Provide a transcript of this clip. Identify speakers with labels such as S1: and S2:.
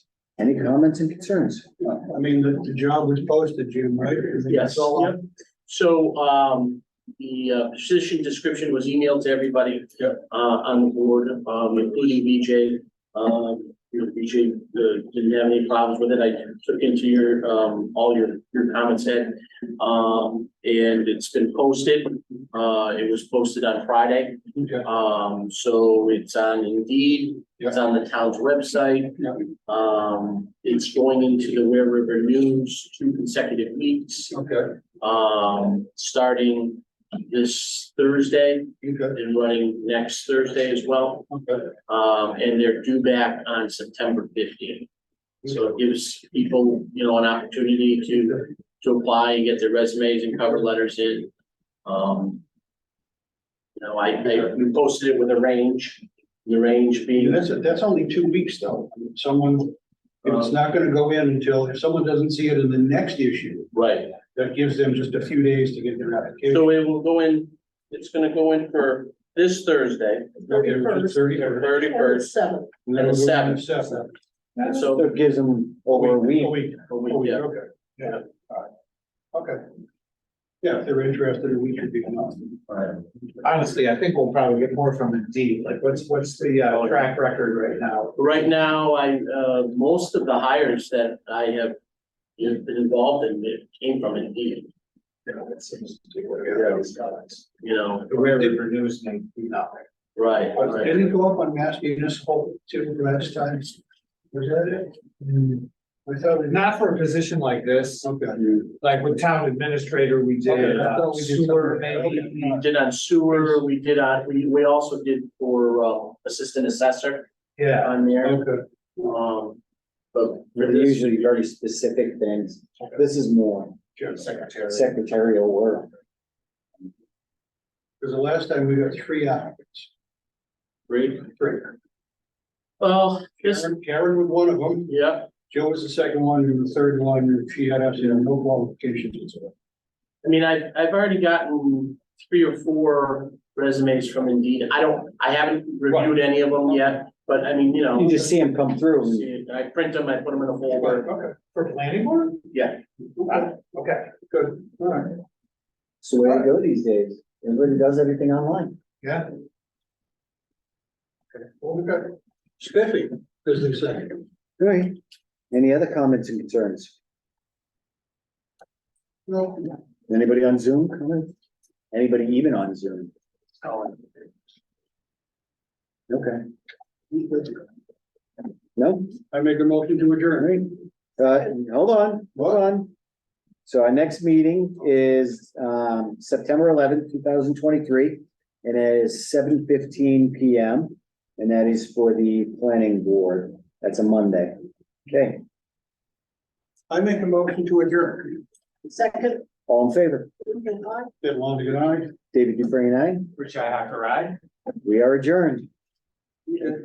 S1: Any comments and concerns?
S2: I mean, the, the job was posted, Jim, right?
S3: Yes, yep. So, um, the uh, position description was emailed to everybody.
S2: Yep.
S3: Uh, on the board, um, including BJ. Um, you know, BJ, uh, didn't have any problems with it. I took into your, um, all your, your comments in. Um, and it's been posted. Uh, it was posted on Friday.
S2: Yeah.
S3: Um, so it's on Indeed. It's on the town's website.
S2: Yeah.
S3: Um, it's going into the Ware River News two consecutive weeks
S2: Okay,
S3: um, starting this Thursday
S2: okay,
S3: and running next Thursday as well.
S2: okay.
S3: Um, and they're due back on September fifteenth. So it gives people, you know, an opportunity to, to apply and get their resumes and cover letters in. Um, you know, I, I we posted it with a range, the range
S2: Yeah,
S3: being,
S2: That's, that's only two weeks though. Someone, if
S3: Uh,
S2: it's not gonna go in until, if someone doesn't see it in the next issue,
S3: right.
S2: that gives them just a few days to get their application.
S3: So it will go in, it's gonna go in for this Thursday,
S2: Okay, which is thirty.
S3: the thirty-first,
S4: Seven.
S2: And then we'll go
S3: Seven.
S2: to Seven.
S3: and so,
S1: So it gives them over a week.
S2: A week.
S3: a week,
S2: A week,
S3: yeah.
S2: okay, yeah, all right, okay. Yeah, if they're interested, a week would be enough.
S5: Honestly, I think we'll probably get more from Indeed, like what's, what's the uh, track record right now?
S3: Right now, I, uh, most of the hires that I have you know, been involved in it came from Indeed,
S5: You know, it seems to be what everybody's got.
S3: you know,
S5: The way it renews may be nothing.
S3: right,
S2: But
S3: right.
S2: Didn't it go up on Mass Municipal too last time? Was that it? I thought it.
S5: Not for a position like this,
S2: Okay.
S5: like with town administrator, we
S2: Okay,
S5: did
S2: I
S5: uh,
S2: thought we did
S5: sewer
S2: something.
S5: maybe.
S3: We did on sewer, we did on, we, we also did for, uh, assistant assessor
S5: Yeah,
S3: on there,
S2: Okay,
S3: um, but for
S1: They're
S3: this,
S1: usually very specific things. This is more
S2: sure.
S5: secretary.
S1: secretarial work.
S2: Because the last time we got three applicants.
S3: Great.
S2: Three.
S3: well, this,
S2: Karen- Karen was one of them,
S3: yeah,
S2: Joe was the second one, and the third one, and she had absolutely no qualifications.
S3: I mean, I, I've already gotten three or four resumes from Indeed, I don't, I haven't reviewed any of them yet, but I mean, you know.
S1: You just see them come through. and-
S3: See, I print them, I put them in a folder,
S2: Okay,
S5: For planning board?
S3: yeah,
S5: Wow, Okay.
S2: good, all right,
S1: It's the way to go these days. Everybody does everything online.
S5: Yeah.
S2: well, we got spiffy, is the second.
S1: All right. Any other comments and concerns?
S2: No,
S1: Anybody on Zoom comment? Anybody even on Zoom? Okay, no?
S2: I make a motion to
S1: All
S2: adjourn.
S1: right. Uh, hold on, hold on. So our next meeting is, um, September eleventh, two thousand twenty-three. And it is seven fifteen P M. And that is for the planning board. That's a Monday. Okay,
S2: I make a motion to adjourn.
S4: Second,
S1: all in favor?
S4: moving on.
S2: Bit long to get on.
S1: David Dufresne, aye?
S5: Richi Hacker, aye?
S1: We are adjourned.